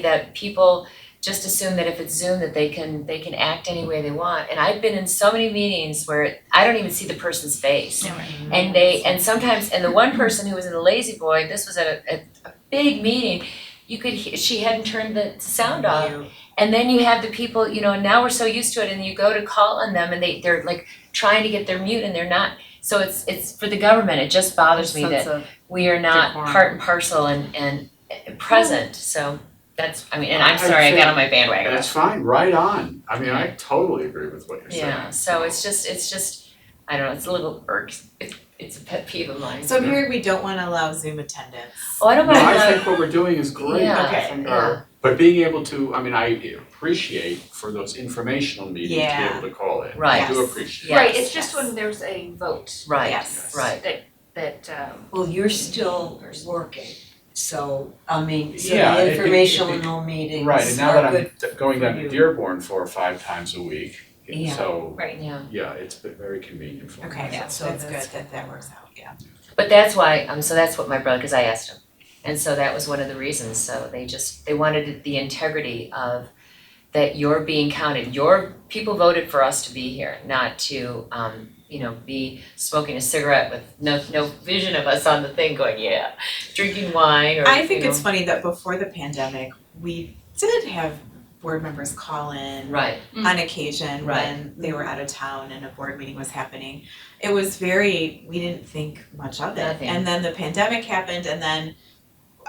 that people just assume that if it's Zoom that they can they can act any way they want. And I've been in so many meetings where I don't even see the person's face. And they and sometimes and the one person who was in the lazy boy, this was at a, at a big meeting, you could he- she hadn't turned the sound off. And then you have the people, you know, and now we're so used to it and you go to call on them and they they're like trying to get their mute and they're not. So it's it's for the government, it just bothers me that we are not Decorum. part and parcel and and present, so that's, I mean, and I'm I'd sorry, I say- got on my And bandwagon. it's fine, right on. I mean, I totally agree with what you're saying. Yeah, so it's just, it's just, I don't know, it's a little irks, it's it's a pet peeve of mine. So I'm hearing we don't wanna allow Zoom attendance. Oh, I don't No, mind, I that. think what we're doing is great. Yeah. I think Okay. our- But being able to, I mean, I appreciate for those informational meetings to be Yeah. able to call in. Right. I do Yes. appreciate it. Right, Yes, it's just yes. when there's a vote right, Yes. right. that, um, Well, you're still working, so, I mean, so Yeah, it- the it- it- informational meetings Right, and now that are I'm good. d- going down for to you. Dearborn four or five times a week, and Yeah. so, right, Yeah, yeah, it's been very convenient for me. Okay, Yeah, so it's good that's that that works out, yeah. but that's why, um, so that's what my brother, cause I asked him. And so that was one of the reasons, so they just, they wanted the integrity of that you're being counted, your, people voted for us to be here, not to, um, you know, be smoking a cigarette with no, no vision of us on the thing going, yeah, drinking wine or, I think you know. it's funny that before the pandemic, we did have board members call in Right, on occasion Mm-hmm. Right. when they were out of town and a board meeting was happening. It was very, we didn't think much of it. Nothing. And then the pandemic happened and then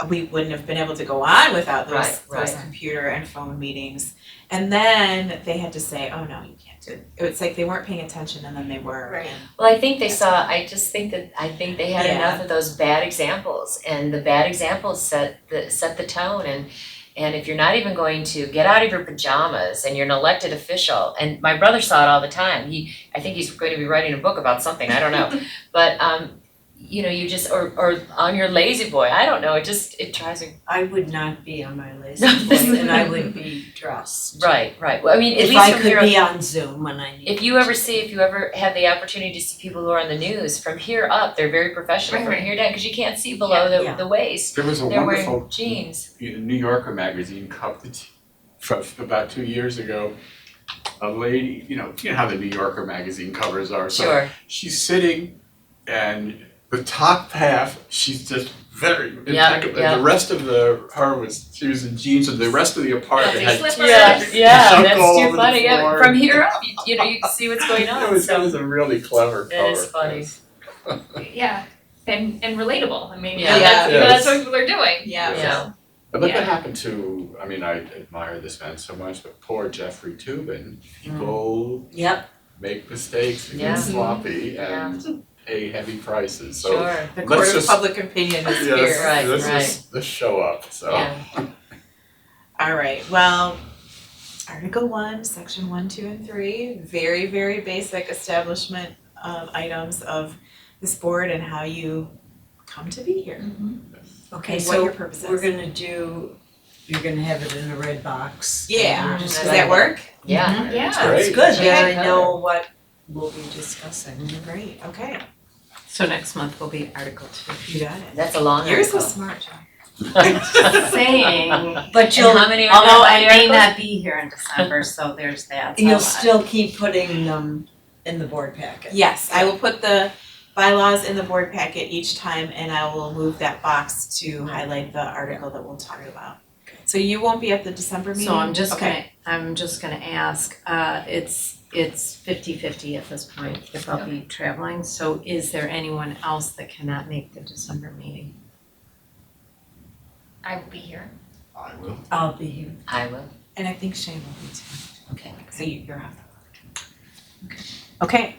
we wouldn't have been able to go on without those Right, right. those computer and phone meetings. And then they had to say, oh no, you can't do it. It's like they weren't paying attention and then they were. Right. and- well, I think they saw, I just think that, I think they had Yeah. enough of those bad examples, and the bad examples set the, set the tone, and and if you're not even going to get out of your pajamas and you're an elected official, and my brother saw it all the time, he, I think he's going to be writing a book about something, I don't know, but um, you know, you just, or or on your lazy boy, I don't know, it just, it drives me, I would not be on my list, No, this is- and I would be dressed. right, right, well, I mean, at If least I from here could be on Zoom when I need. if you ever see, if you ever have the opportunity to see people who are on the news, from here up, they're very professional, Right, from right. here down, cause you can't see below Yeah. the, the waist. There was a They're wonderful wearing jeans, you know, New Yorker magazine covered from about two years ago. A lady, you know, you know how the New Yorker magazine covers are, so sure, She's sitting and the top half, she's just very Yeah, impeccable. yeah. And the rest of the her was she was in jeans and the rest of the apartment Yeah, had slippers. yeah, yeah, junk that's all too over the funny, yeah, floor. from here up, you, you know, you can see what's going It on, was, it so, was a really clever That is cover, funny. yes. yeah, and, and relatable, I mean, Yeah. that's, Yeah. that's what people are doing, Yeah. Yeah. yeah, But look Yeah. what happened to I mean, I admire this man so much, but poor Jeffrey Tubin. People Yep, make mistakes and Mm. Yeah. Mm-hmm. get sloppy and pay heavy prices. So sure, The Let's court of just- public opinion is here. yes, Right, this right. is the show up. So yeah, All right, well, Article one, section one, two, and three, very, very basic establishment of items of this board and how you come to be here Mm-hmm. okay, and what your so purpose is. we're gonna do, you're gonna have it in a red box. and Yeah, we're does just that gonna- work? yeah, Mm-hmm. it's Yeah. great. It's good, Yeah. then I know what we'll be discussing. Great, okay, So next month will be Article Two. you got it. that's a long You're so article. smart, John. Saying, But And you'll, how many are there? although I How many may not articles? be here in December, so there's that. you'll still keep putting them in the board packet. Yes, I will put the bylaws in the board packet each time and I will move that box to highlight the article that we'll talk about. So you won't be at the December meeting? So I'm just Okay. gonna, I'm just gonna ask, uh, it's, it's fifty-fifty at this point, if I'll be traveling, so is there anyone else that cannot make the December meeting? I will be here. I will. I'll be here. I will, And I think Shane will be too. okay, So you, you're off the hook. Okay.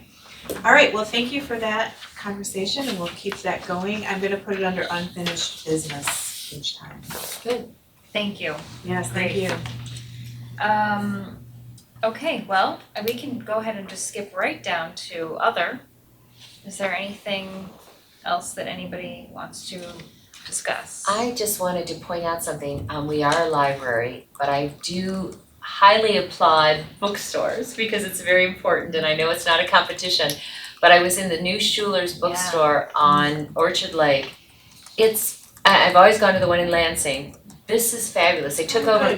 All right, well, thank you for that conversation and we'll keep that going. I'm gonna put it under unfinished business each time. Thank you. Yes, thank Great. you. Um, okay, well, we can go ahead and just skip right down to other. Is there anything else that anybody wants to discuss? I just wanted to point out something, um, we are a library, but I do highly applaud bookstores because it's very important and I know it's not a competition. But I was in the new Schuler's bookstore on Orchard Lake. It's, I I've always gone to the one in Lansing, this is fabulous, they took over